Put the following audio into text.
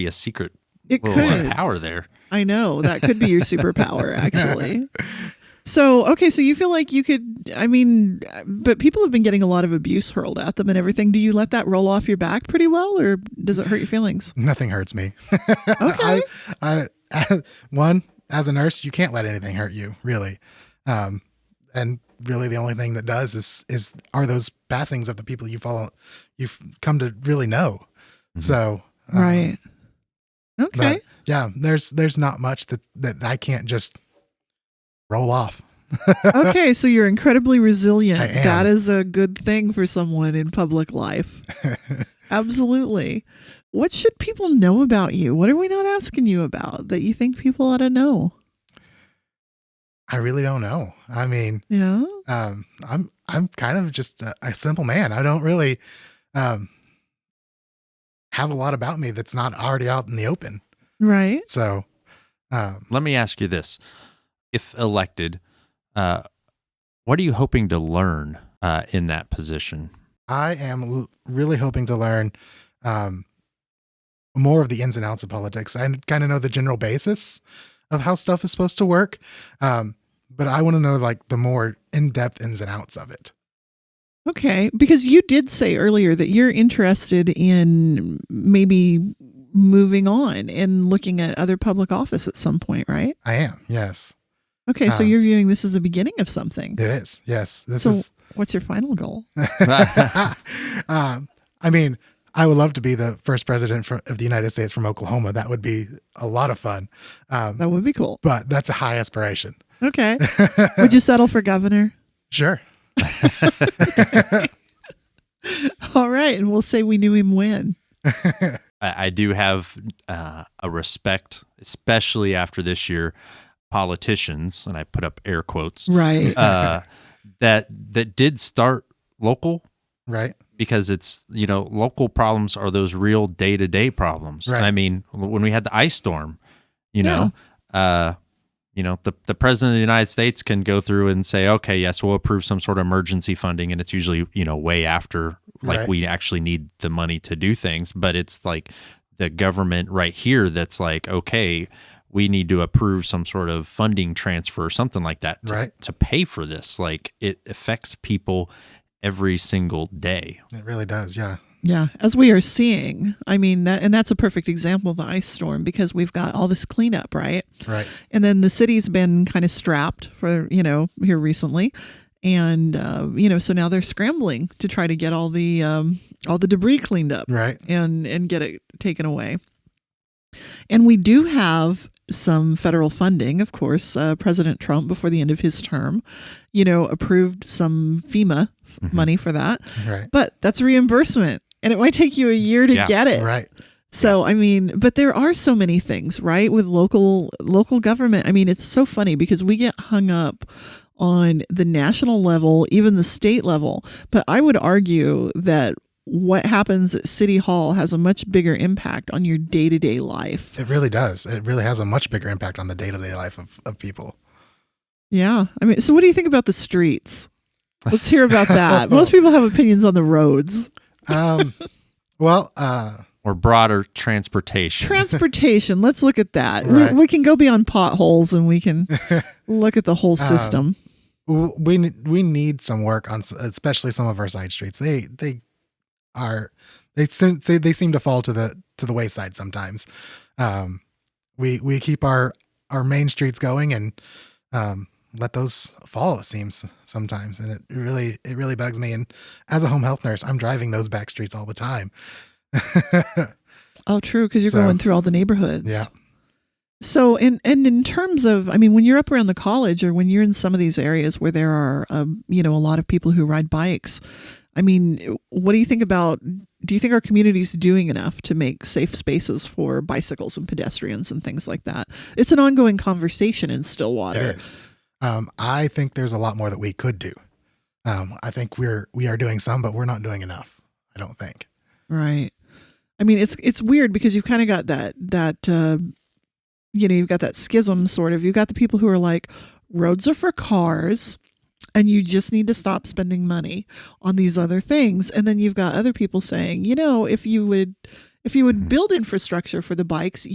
be a secret It little uh, could. power there. I know that could be your superpower, actually. So, okay, so you feel like you could, I mean, but people have been getting a lot of abuse hurled at them and everything. Do you let that roll off your back pretty well, or does it hurt your feelings? Nothing hurts me. I, I, one, as a nurse, you can't let anything hurt you, really. Um, and really, the only thing that does is is are those passings of the people you follow, you've come to really know. So um, Right. but, Okay. yeah, there's there's not much that that I can't just roll off. okay, so you're incredibly resilient. I am. That is a good thing for someone in public life. Absolutely. What should people know about you? What are we not asking you about that you think people ought to know? I really don't know. I mean, Yeah. um, I'm I'm kind of just a, a simple man. I don't really um, have a lot about me that's not already out in the open. Right. So, um, Let me ask you this: If elected, uh, what are you hoping to learn uh, in that position? I am l- really hoping to learn um, more of the ins and outs of politics. I kind of know the general basis of how stuff is supposed to work, um, but I want to know like the more in depth ins and outs of it. Okay, because you did say earlier that you're interested in maybe moving on and looking at other public office at some point, right? I am, yes, Okay, so Um, you're viewing this as the beginning of something. it is, yes. This So, is what's your final goal? um, I mean, I would love to be the first president from, of the United States from Oklahoma. That would be a lot of fun. Um, That would be cool. but that's a high aspiration. Okay. would you settle for governor? Sure. All right, and we'll say we knew him when. I, I do have uh, a respect, especially after this year, politicians, and I put up air quotes Right. uh, that that did start local Right. because it's you know local problems are those real day to day problems. Right. I mean, when we had the ice storm, you know, uh, you know, the the president of the United States can go through and say, okay, yes, we'll approve some sort of emergency funding, and it's usually you know way after like Right. we actually need the money to do things, but it's like the government right here that's like, okay. We need to approve some sort of funding transfer or something like that to, Right. to pay for this. Like it affects people every single day. It really does. Yeah. Yeah, as we are seeing, I mean, that, and that's a perfect example of the ice storm because we've got all this cleanup, right? Right. and then the city's been kind of strapped for you know here recently and uh, you know so now they're scrambling to try to get all the um, all the debris cleaned up Right. and and get it taken away and we do have some federal funding of course uh, president trump before the end of his term you know approved some fema f- Mhm. money for that Right. but that's reimbursement and it might take you a year to Yeah, get it Right. so I mean, but there are so many things, right, with local local government. I mean, it's so funny because we get hung up on the national level, even the state level, but I would argue that what happens at city hall has a much bigger impact on your day-to-day life. It really does. It really has a much bigger impact on the day to day life of, of people. Yeah. I mean, so what do you think about the streets? Let's hear about that. Most people have opinions on the roads. Um, well, uh, or broader transportation. Transportation, let's look at that. Right. We, we can go beyond potholes and we can look at the whole system. w- we n- we need some work on, s- especially some of our side streets. They they are they seem, say they seem to fall to the to the wayside sometimes. Um, we we keep our our main streets going and um, let those fall. It seems sometimes, and it really it really bugs me. And as a home health nurse, I'm driving those back streets all the time. Oh, true, because you're So- going through all the neighborhoods. Yeah. So, and and in terms of, I mean, when you're up around the college or when you're in some of these areas where there are, um, you know, a lot of people who ride bikes, I mean, what do you think about? Do you think our community's doing enough to make safe spaces for bicycles and pedestrians and things like that? It's an ongoing conversation in Stillwater. It is. Um, I think there's a lot more that we could do. Um, I think we're we are doing some, but we're not doing enough. I don't think. Right. I mean, it's it's weird because you've kind of got that that uh, you know you've got that schism sort of. You've got the people who are like, roads are for cars, and you just need to stop spending money on these other things. And then you've got other people saying, you know, if you would If you would build infrastructure for the bikes,